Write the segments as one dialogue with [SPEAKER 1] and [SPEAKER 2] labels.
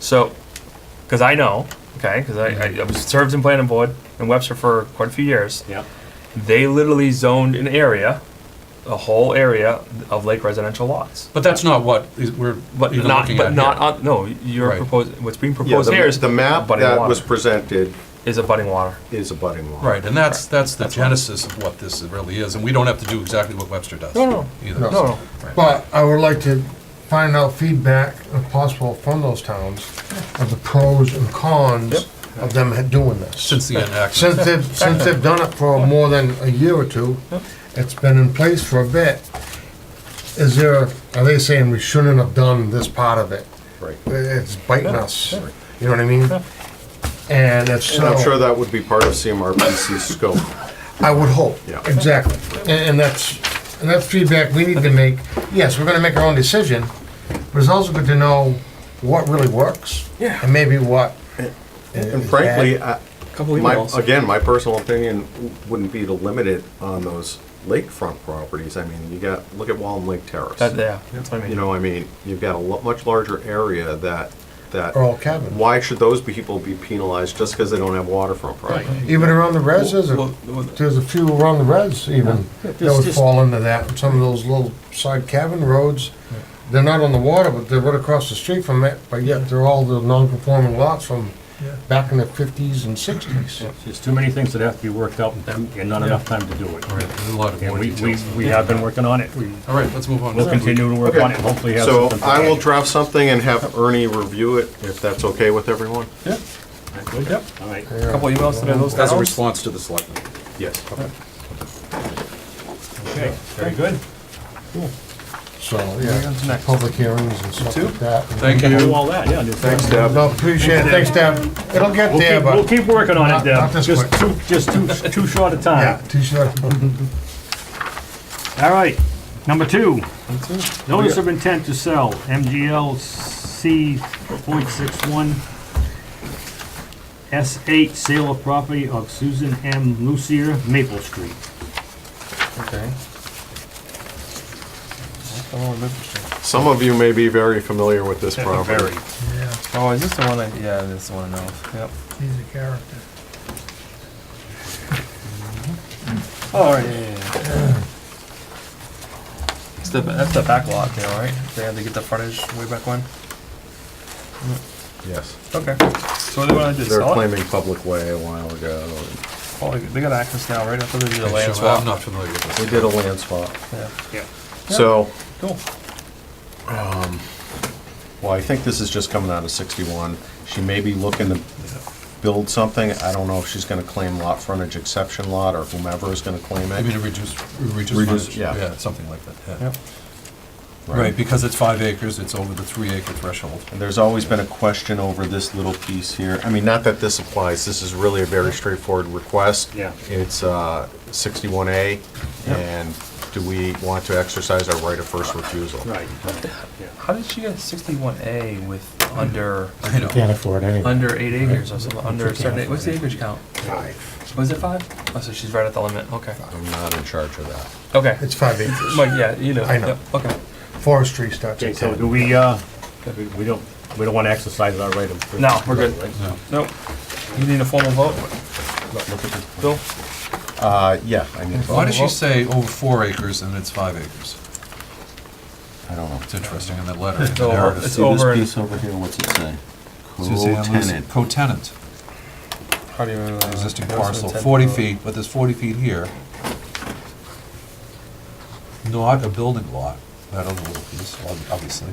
[SPEAKER 1] So, because I know, okay, because I, I, I served in planning board in Webster for quite a few years.
[SPEAKER 2] Yep.
[SPEAKER 1] They literally zoned an area, a whole area of lake residential lots.
[SPEAKER 3] But that's not what is, we're
[SPEAKER 1] But
[SPEAKER 3] even
[SPEAKER 1] not,
[SPEAKER 3] looking
[SPEAKER 1] but
[SPEAKER 3] at
[SPEAKER 1] not
[SPEAKER 3] here.
[SPEAKER 1] on, no, you're
[SPEAKER 3] Right.
[SPEAKER 1] proposing, what's being
[SPEAKER 4] Yeah,
[SPEAKER 1] proposed
[SPEAKER 4] the,
[SPEAKER 1] here is.
[SPEAKER 4] the map
[SPEAKER 1] abutting
[SPEAKER 4] that
[SPEAKER 1] water-
[SPEAKER 4] was presented
[SPEAKER 1] Is abutting water.
[SPEAKER 4] is a budding lot.
[SPEAKER 3] Right, and that's, that's the genesis of what this really is, and we don't have to do exactly what Webster does.
[SPEAKER 1] No, no,
[SPEAKER 3] either.
[SPEAKER 1] No, no,
[SPEAKER 3] Right.
[SPEAKER 5] But I would like to find out feedback, if possible, from those towns of the pros and
[SPEAKER 1] Yep.
[SPEAKER 5] cons of them ha- doing this.
[SPEAKER 3] Since the enactment.
[SPEAKER 5] Since they've, since they've done it for more than a year or two, it's been in place for a bit. Is there, are they saying we shouldn't have done this part of it?
[SPEAKER 4] Right.
[SPEAKER 5] It's biting us, you know what I mean? And it's
[SPEAKER 4] And I'm sure
[SPEAKER 5] so,
[SPEAKER 4] that would be part of CMRPC's scope.
[SPEAKER 5] I would hope,
[SPEAKER 4] Yeah.
[SPEAKER 5] exactly. And, and that's, and that's feedback we need to make. Yes, we're gonna make our own decision, but it's also good to know what really works.
[SPEAKER 1] Yeah.
[SPEAKER 5] And maybe what.
[SPEAKER 4] And frankly, I-
[SPEAKER 1] couple
[SPEAKER 4] my,
[SPEAKER 1] emails.
[SPEAKER 4] again, my personal opinion wouldn't be to limit it on those lakefront properties. I mean, you got, look at Wallam Lake Terrace.
[SPEAKER 1] That, yeah, that's what I mean.
[SPEAKER 4] You know, I mean, you've got a lo- much larger area that, that,
[SPEAKER 5] Or all cabins.
[SPEAKER 4] why should those people be penalized just because they don't have waterfront property?
[SPEAKER 5] Even around the res, there's
[SPEAKER 3] Well,
[SPEAKER 5] a,
[SPEAKER 3] well,
[SPEAKER 5] there's a few around the res even that would fall into that. And Some of those little side cabin roads, they're not on the water, but they're right across the street from it, but yet they're all the non-conforming lots from back in the fifties and sixties.
[SPEAKER 2] There's too many things that have to be worked out and and not enough time to do it.
[SPEAKER 3] All right, there's a lot of
[SPEAKER 2] And
[SPEAKER 3] more
[SPEAKER 2] we, we,
[SPEAKER 3] details.
[SPEAKER 2] we have been working on it. We
[SPEAKER 3] All right, let's move on.
[SPEAKER 2] will continue to work on it, and hopefully have
[SPEAKER 4] So
[SPEAKER 2] something.
[SPEAKER 4] I will draft something and have Ernie review it, if that's okay with everyone?
[SPEAKER 2] Yep. All right.
[SPEAKER 1] A Couple emails today, those
[SPEAKER 6] As a
[SPEAKER 1] towns.
[SPEAKER 6] response to the selectmen.
[SPEAKER 4] Yes.
[SPEAKER 2] Okay, very good.
[SPEAKER 5] So, yeah, public hearings and stuff like that.
[SPEAKER 3] Thank
[SPEAKER 2] Do
[SPEAKER 3] you.
[SPEAKER 2] all that, yeah. just-
[SPEAKER 4] Thanks, Deb.
[SPEAKER 5] No, appreciate it, thanks, Deb. It'll get
[SPEAKER 2] We'll
[SPEAKER 5] there,
[SPEAKER 2] keep, we'll
[SPEAKER 5] but,
[SPEAKER 2] keep working on it,
[SPEAKER 5] Not-
[SPEAKER 2] Deb.
[SPEAKER 5] not this
[SPEAKER 2] Just
[SPEAKER 5] quick.
[SPEAKER 2] too, just too, too short a
[SPEAKER 5] yeah,
[SPEAKER 2] time.
[SPEAKER 5] t-shirt.
[SPEAKER 2] All right, number two. Notice of intent to sell, MGL C point six one. S eight, sale of property of Susan M. Lucier, Maple Street.
[SPEAKER 1] Okay.
[SPEAKER 4] Some of you may be very familiar with this
[SPEAKER 2] Very.
[SPEAKER 4] property.
[SPEAKER 1] Oh, is this the one that, yeah, this one, no, yep.
[SPEAKER 5] He's a character.
[SPEAKER 2] All
[SPEAKER 1] Oh,
[SPEAKER 2] right,
[SPEAKER 1] It's the, that's the back lot there, right? They had to get the frontage way back when?
[SPEAKER 4] Yes.
[SPEAKER 1] Okay. So what do they wanna do,
[SPEAKER 4] They're
[SPEAKER 1] sell it?
[SPEAKER 4] claiming public way a while ago.
[SPEAKER 1] Oh, they got access now, right? I thought they did a land
[SPEAKER 3] So I'm
[SPEAKER 1] swap.
[SPEAKER 3] not familiar with this.
[SPEAKER 4] We did a land swap.
[SPEAKER 1] Yeah.
[SPEAKER 2] yeah.
[SPEAKER 4] So,
[SPEAKER 1] Cool.
[SPEAKER 4] well, I think this is just coming out of 61. She may be looking to build something. I don't know if she's gonna claim lot frontage exception lot or whomever is gonna claim
[SPEAKER 3] I mean,
[SPEAKER 4] it.
[SPEAKER 3] a reduced, reduced
[SPEAKER 4] Reduced,
[SPEAKER 3] frontage.
[SPEAKER 4] yeah.
[SPEAKER 3] Yeah, something like that, yeah.
[SPEAKER 1] Yep.
[SPEAKER 3] Right, because it's five acres, it's over the three acre threshold.
[SPEAKER 4] And there's always been a question over this little piece here. I mean, not that this applies, this is really a very straightforward request.
[SPEAKER 2] Yeah.
[SPEAKER 4] It's uh, 61A, and do we want to exercise our right of first refusal?
[SPEAKER 2] Right.
[SPEAKER 1] How did she get sixty-one A with under,
[SPEAKER 3] I know.
[SPEAKER 6] Can't afford anything.
[SPEAKER 1] under eight acres or something, under a certain, a- what's the acreage count? Was it five? Oh, so she's right at the limit, okay.
[SPEAKER 4] I'm not in charge of that.
[SPEAKER 1] Okay.
[SPEAKER 5] It's five acres.
[SPEAKER 1] Mike, yeah, you know.
[SPEAKER 5] I know.
[SPEAKER 1] Yep, Okay.
[SPEAKER 5] Forestry starts
[SPEAKER 2] Okay,
[SPEAKER 5] at
[SPEAKER 2] so
[SPEAKER 5] ten.
[SPEAKER 2] do we, uh, we- we don't, we don't want to exercise our right of.
[SPEAKER 1] No, we're good.
[SPEAKER 2] Right?
[SPEAKER 3] No.
[SPEAKER 1] Nope. You need a formal vote,
[SPEAKER 4] Look look at the-
[SPEAKER 1] Bill?
[SPEAKER 4] Uh, yeah, I mean,
[SPEAKER 3] Why does she say over four acres and it's five acres?
[SPEAKER 4] I don't know.
[SPEAKER 3] It's interesting in that letter. in
[SPEAKER 1] It's
[SPEAKER 3] the
[SPEAKER 1] over.
[SPEAKER 3] narrative.
[SPEAKER 1] It's over in-
[SPEAKER 6] over here, what's it say?
[SPEAKER 3] Suzanne Lucy,
[SPEAKER 6] Co-tenant.
[SPEAKER 3] Co-tenant,
[SPEAKER 1] How do you? uh,
[SPEAKER 3] existing
[SPEAKER 1] notice of
[SPEAKER 3] parcel,
[SPEAKER 1] intent
[SPEAKER 3] forty
[SPEAKER 1] to-
[SPEAKER 3] feet, but there's forty feet here. Not a building lot, that other little piece, ob- obviously.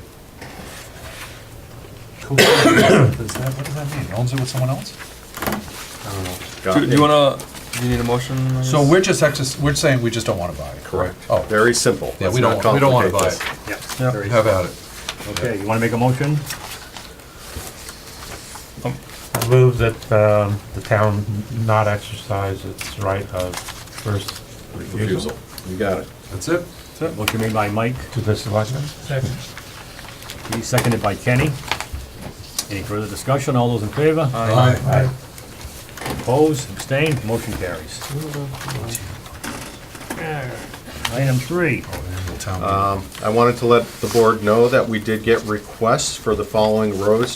[SPEAKER 3] Co-tenant, Is that, what does that mean? Owns it with someone else?
[SPEAKER 4] Got
[SPEAKER 1] Do do you
[SPEAKER 4] it.
[SPEAKER 1] wanna, do you need a motion? on this?
[SPEAKER 3] So we're just exercis, we're saying we just don't wanna buy it.
[SPEAKER 4] Correct.
[SPEAKER 3] Oh.
[SPEAKER 4] Very simple.
[SPEAKER 3] Yeah, we don't,
[SPEAKER 4] Let's not
[SPEAKER 3] we don't wanna buy
[SPEAKER 4] complicate
[SPEAKER 3] it.
[SPEAKER 2] Yeah.
[SPEAKER 1] Yeah.
[SPEAKER 2] very-
[SPEAKER 3] Have at it.
[SPEAKER 2] Okay, you want to make a motion?
[SPEAKER 7] I move that um, the town not exercise its right of first
[SPEAKER 4] this.
[SPEAKER 7] refusal
[SPEAKER 4] Refusal. You got it.
[SPEAKER 3] That's it?
[SPEAKER 2] Motion made by Mike,
[SPEAKER 7] to the selectmen.
[SPEAKER 2] seconded by Kenny. Any further discussion? All those in favor?
[SPEAKER 3] Aye.
[SPEAKER 2] Opposed, abstained, motion carries. Item three,
[SPEAKER 3] Town meeting.
[SPEAKER 4] Um, I wanted to let the board know that we did get requests for the following roads